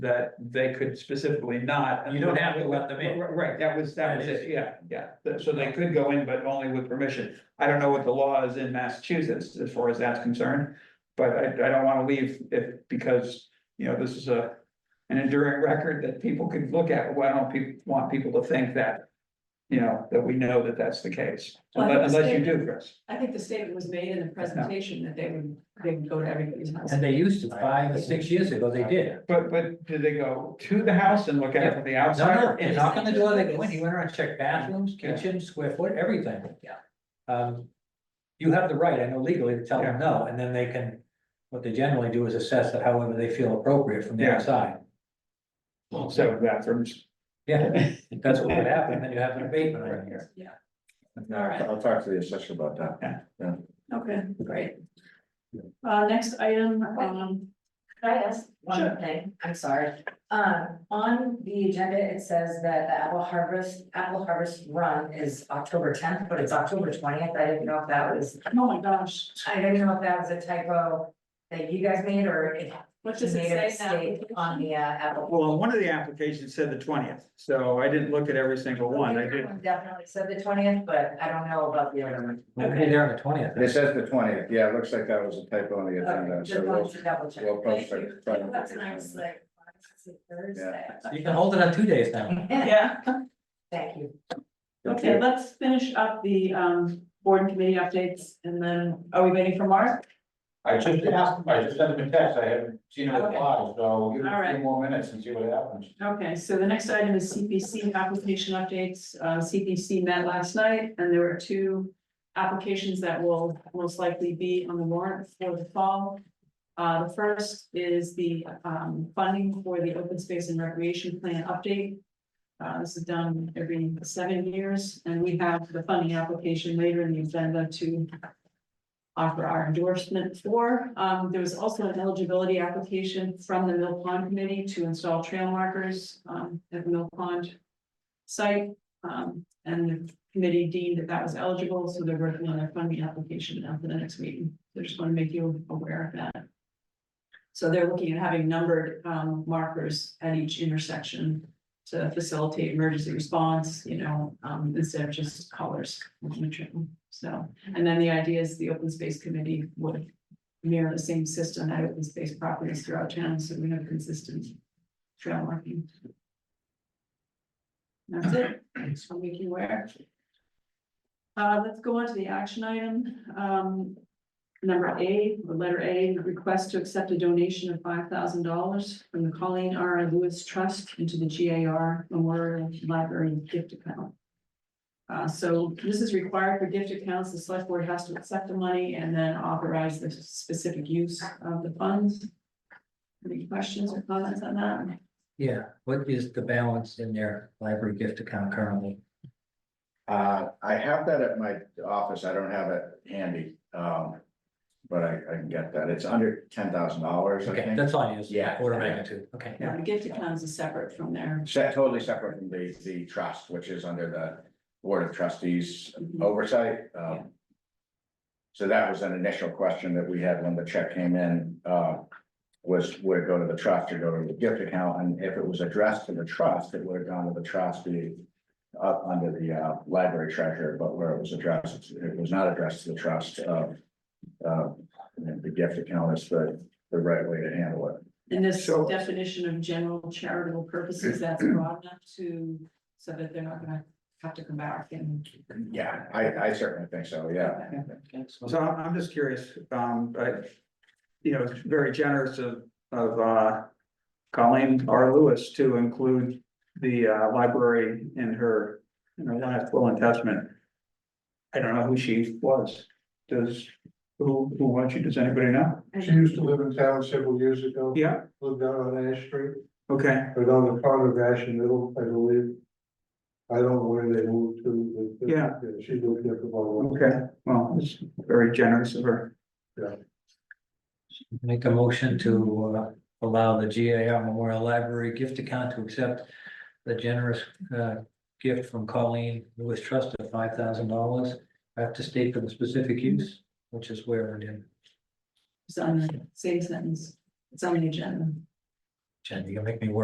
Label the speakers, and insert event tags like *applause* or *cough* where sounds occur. Speaker 1: that they could specifically not.
Speaker 2: You don't have to let them in.
Speaker 1: Right, Right, that was, that was
Speaker 2: That
Speaker 1: it,
Speaker 2: is-
Speaker 1: yeah, yeah, Th- so they could go in, but only with permission. I don't know what the law is in Massachusetts as far as that's concerned. But I, I don't wanna leave if, because, you know, this is a, an enduring record that people could look at, why don't people, want people to think that. You know, that we know that that's the case,
Speaker 3: Well, I
Speaker 1: unless, unless you
Speaker 3: understand.
Speaker 1: do, Chris.
Speaker 3: I think the statement was made in the presentation that they would, they would go to everybody's house.
Speaker 2: And they used to, five or six years ago, they did.
Speaker 1: But, but do they go to the house and look at it from the
Speaker 2: No,
Speaker 1: outside?
Speaker 2: no,
Speaker 1: or
Speaker 2: they
Speaker 1: in?
Speaker 2: knock on the door, they go in, he went around, checked bathrooms,
Speaker 1: Yeah.
Speaker 2: kitchen, square foot, everything. Yeah. Um, you have the right, I know legally, to tell them no, and then they can, what they generally do is assess it however they feel appropriate from the
Speaker 1: Yeah.
Speaker 2: outside.
Speaker 1: Seven bathrooms.
Speaker 2: Yeah, that's what would happen, then you have an abatement on here.
Speaker 3: All right.
Speaker 4: I'll talk to the assessor about that.
Speaker 3: Okay, great. Uh, next item, um,
Speaker 5: Can I ask
Speaker 3: Sure.
Speaker 5: one thing? I'm sorry. Um, on the agenda, it says that the apple harvest, apple harvest run is October tenth, but it's October twentieth. I didn't know if that was,
Speaker 3: oh my gosh,
Speaker 5: I didn't know if that was a typo that you guys made or it
Speaker 3: what does
Speaker 5: made a
Speaker 3: it say
Speaker 5: mistake
Speaker 3: now?
Speaker 5: on the uh, apple.
Speaker 1: Well, one of the applications said the twentieth, so I didn't look at every single one, I did.
Speaker 5: Definitely said the twentieth, but I don't know about the other one.
Speaker 2: We'll be there on the twentieth.
Speaker 4: It says the twentieth, yeah, it looks like that was a typo on the agenda,
Speaker 5: Okay, Just
Speaker 4: so
Speaker 5: wanted
Speaker 4: we'll,
Speaker 5: to double check.
Speaker 4: we'll post
Speaker 5: Thank
Speaker 4: it.
Speaker 5: you. That's nice, like, why is it Thursday?
Speaker 2: You can hold it on two days now.
Speaker 3: Yeah,
Speaker 5: *laughs* Thank you.
Speaker 3: okay, let's finish up the, um, board and committee updates, and then, are we waiting for Mark?
Speaker 6: I just asked, I just sent him a text, I haven't seen him
Speaker 3: Okay.
Speaker 6: reply, so give it a
Speaker 3: Alright.
Speaker 6: few more minutes and see what happens.
Speaker 3: Okay, so the next item is CPC application updates. Uh, CPC met last night and there were two applications that will most likely be on the warrant for the fall. Uh, the first is the, um, funding for the open space and recreation plan update. Uh, this is done every seven years and we have the funding application later in the agenda to offer our endorsement for. Um, there was also an eligibility application from the Mill Pond Committee to install trail markers, um, at the Mill Pond site. Um, and the committee deemed that that was eligible, so they're working on their funding application now for the next meeting. They just want to make you aware of that. So they're looking at having numbered, um, markers at each intersection to facilitate emergency response, you know, um, instead of just colors. So. And then the idea is the open space committee would mirror the same system at open space properties throughout town, so we have consistent trail marking. That's it, just want to make you aware. Uh, let's go on to the action item, um, number A, the letter A, request to accept a donation of five thousand dollars from the Colleen R. Lewis Trust into the G A R Memorial Library gift account. Uh, so this is required for gift accounts, the select board has to accept the money and then authorize the specific use of the funds. Any questions or comments on that?
Speaker 2: Yeah, what is the balance in their library gift account currently?
Speaker 4: Uh, I have that at my office, I don't have it handy, um, but I, I can get that, it's under ten thousand dollars, I
Speaker 2: Okay,
Speaker 4: think.
Speaker 2: that's all you, is
Speaker 4: Yeah.
Speaker 2: order of magnitude, okay.
Speaker 3: Yeah, the Uh, gift accounts is separate from there.
Speaker 4: Set totally separate from the, the trust, which is under the Board of Trustees oversight,
Speaker 3: Yeah.
Speaker 4: um. So that was an initial question that we had when the check came in, uh, was would it go to the trust or go to the gift account? And if it was addressed to the trust, it would have gone to the trustee up under the, uh, library treasurer, but where it was addressed, it was not addressed to the trust, uh, uh, the gift account is the, the right way to handle it.
Speaker 3: And this
Speaker 1: So-
Speaker 3: definition of general charitable purposes, that's broad enough to, so that they're not gonna have to come back and.
Speaker 4: Yeah, I, I certainly think so, yeah.
Speaker 1: So I'm, I'm just curious, um, but, you know, it's very generous of, of, uh, Colleen R. Lewis to include the, uh, library in her, in her last will and testament. I don't know who she was, does, who, who was she, does anybody know?
Speaker 7: She used to live in town several years ago,
Speaker 1: Yeah,
Speaker 7: lived out on Ash Street,
Speaker 1: okay,
Speaker 7: but on the corner of Ash and Middle, I believe. I don't know where they moved to, but. uh,
Speaker 1: Yeah.
Speaker 7: She lived at the bottom.
Speaker 1: okay, well, it's very generous of her.
Speaker 2: Make a motion to uh, allow the GAR Memorial Library gift account to accept the generous uh, gift from Colleen Lewis Trust of five thousand dollars. I have to state for the specific use, which is where it is.
Speaker 3: It's on the same sentence, it's on the agenda.
Speaker 2: Jen, you gonna make me work